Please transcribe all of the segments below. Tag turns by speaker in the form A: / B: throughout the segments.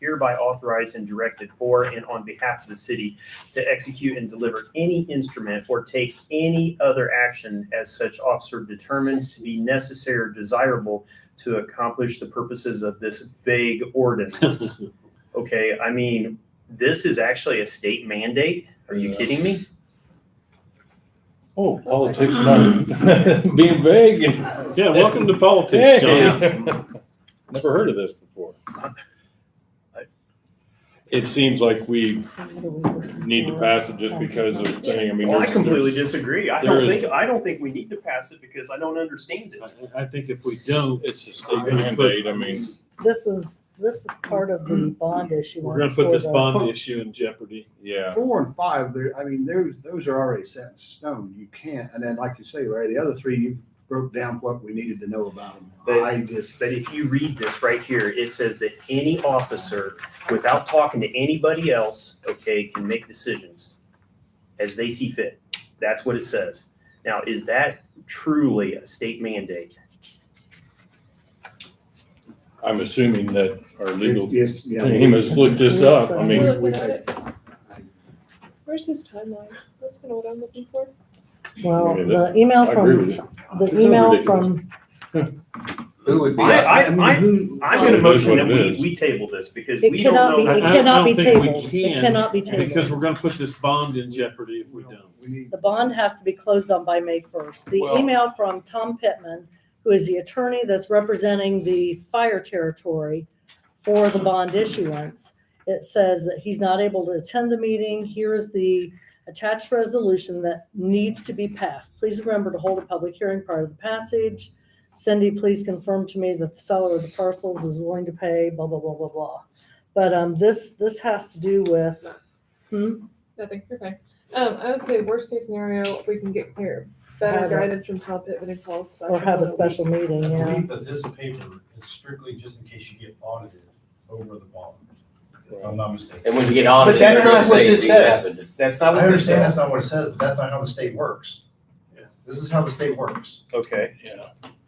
A: hereby authorized and directed for and on behalf of the city to execute and deliver any instrument or take any other action as such officer determines to be necessary or desirable to accomplish the purposes of this vague ordinance. Okay, I mean, this is actually a state mandate. Are you
B: Yeah.
A: kidding me?
C: Oh,
D: politics,
C: being vague and.
E: Yeah, welcome to politics, John.
C: Never heard of this before. It seems like we need to pass it just because of thing, I mean.
A: Well, I
C: there's-
A: completely disagree. I
C: there
A: don't
C: is-
A: think, I don't think we need to pass it because I don't understand it.
E: I, I think if we don't,
C: It's a state mandate, I mean,
D: This is, this is part of the bond issue.
E: we're gonna put this bond issue in jeopardy.
C: yeah,
B: Four and five, there, I mean, those, those are already set in stone. You can't, and then like you say, Ray, the other three, you've broke down what we needed to know about them.
A: But-
B: I just,
A: But if you read this right here, it says that any officer, without talking to anybody else, okay, can make decisions as they see fit. That's what it says. Now, is that truly a state mandate?
C: I'm assuming that our legal
B: it's, yeah.
C: team has looked this up, I mean,
B: We- we take-
F: Where's his timeline? That's kind of what I'm looking for.
D: Well,
C: Yeah,
D: the email
C: I agree
D: from,
C: with you. It's
D: the email
C: ridiculous.
D: from,
B: Who would be?
A: I- I-
B: mean,
A: I-
B: who-
A: I'm gonna
C: It is
A: motion
C: what
A: that
C: it
A: we,
C: is.
A: we table this because
D: it
A: we don't
D: cannot be,
A: know.
D: it
E: I- I
D: cannot be
E: don't think we
D: tabled. It
E: can,
D: cannot be
E: Because
D: tabled.
E: we're gonna put this bond in jeopardy if we don't.
B: We need,
D: The bond has to be closed on by May first. The
C: Well-
D: email from Tom Pittman, who is the attorney that's representing the fire territory for the bond issuance, it says that he's not able to attend the meeting. Here is the attached resolution that needs to be passed. Please remember to hold a public hearing prior to the passage. Cindy, please confirm to me that the seller of the parcels is willing to pay, blah, blah, blah, blah, blah. But, um, this, this has to do with,
F: Nothing. You're fine. Um, I would say worst case scenario, we can get clear, better
D: Have a-
F: guidance from Tom Pittman and call a special.
D: or have a
F: meeting.
D: special meeting,
G: I
D: you know?
G: believe that this paper is strictly just in case you get audited over the bond, if I'm not mistaken.
H: And when you get audited,
A: that's
H: they're gonna
A: not what
H: say
A: this
H: things
A: says.
H: happened.
A: That's
G: I
A: not what this
G: understand that's
A: says.
G: not what it says, but that's not how the state works.
E: Yeah.
G: This is how the state works.
A: Okay,
C: yeah,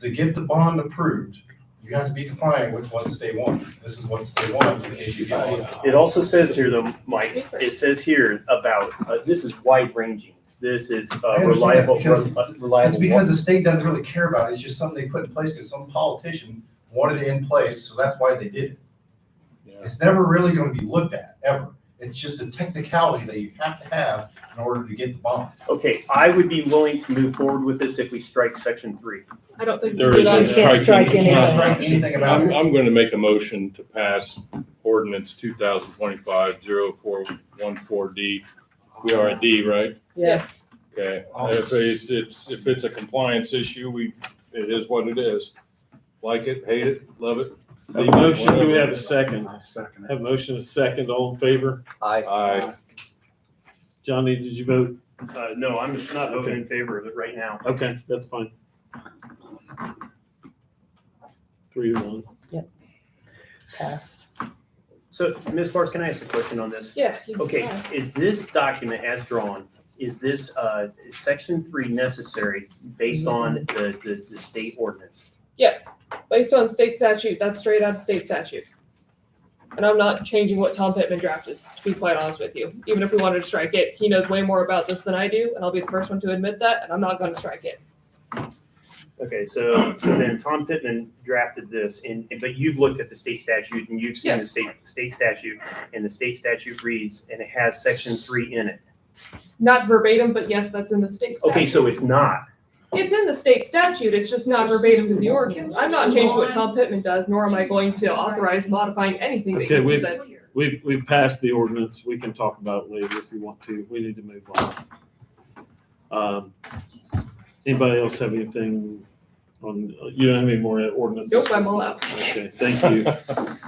G: To get the bond approved, you have to be compliant with what the state wants. This is what the state wants in case you get audited.
A: it also says here though, Mike, it says here about, uh, this is wide ranging. This is uh,
G: I understand,
A: reliable, uh,
G: because It's
A: reliable.
G: because the state doesn't really care about it, it's just something they put in place because some politician wanted it in place, so that's why they did it.
C: yeah.
G: It's never really gonna be looked at, ever. It's just a technicality that you have to have in order to get the bond.
A: Okay, I would be willing to move forward with this if we strike section three.
F: I don't think.
C: There
F: we
C: is
F: can
C: no
D: You can't
C: striking.
D: strike
C: It's
D: any
C: not
D: of
G: Right,
D: that.
C: striking.
G: Anything about
C: I'm,
G: it.
C: I'm going to make a motion to pass ordinance 2025-0414D. We are a D, right?
D: Yes.
C: Okay. And If it's, it's, if it's a compliance issue, we, it is what it is. Like it, hate it, love it.
E: A motion, do we have a second?
B: I'll second it.
E: Have a motion, a second, all in favor?
H: I,
C: Aye.
E: Johnny, did you vote?
A: Uh, no, I'm not voting in favor of it right now.
E: Okay, that's fine. Three to one.
D: Passed.
A: So, Ms. Barnes, can I ask a question on this?
F: Yeah. you can
A: Okay,
F: try.
A: is this document as drawn, is this, uh, is section three necessary based on the, the, the state ordinance?
F: Yes, based on state statute, that's straight out of state statute. And I'm not changing what Tom Pittman drafted, to be quite honest with you. Even if we wanted to strike it, he knows way more about this than I do, and I'll be the first one to admit that, and I'm not gonna strike it.
A: Okay, so, so then Tom Pittman drafted this and, and- but you've looked at the state statute and you've seen the
F: Yes.
A: state, state statute and the state statute reads and it has section three in it.
F: Not verbatim, but yes, that's in the state statute.
A: Okay, so it's not.
F: It's in the state statute, it's just not verbatim in the ordinance. I'm not changing what Tom Pittman does, nor am I going to authorize modifying anything that
E: Okay,
F: he
E: we've-
F: presents.
E: We've, we've passed the ordinance. We can talk about it later if you want to. We need to move on. Um, Anybody else have anything on, you don't have any more ordinances?
F: Nope, I'm all out.
E: Okay, thank you.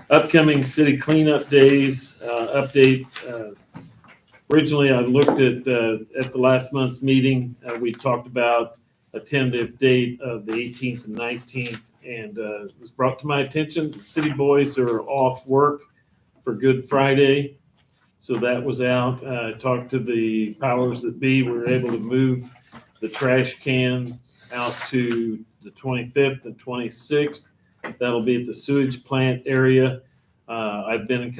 E: Upcoming city cleanup days, uh, update. uh, Originally, I looked at, uh, at the last month's meeting, uh, we talked about a tentative date of the eighteenth and nineteenth. And, uh, it was brought to my attention, the city boys are off work for Good Friday. So that was out. Uh, I talked to the powers that be. We were able to move the trash cans out to the twenty-fifth and twenty-sixth. That'll be at the sewage plant area. Uh, I've been in contact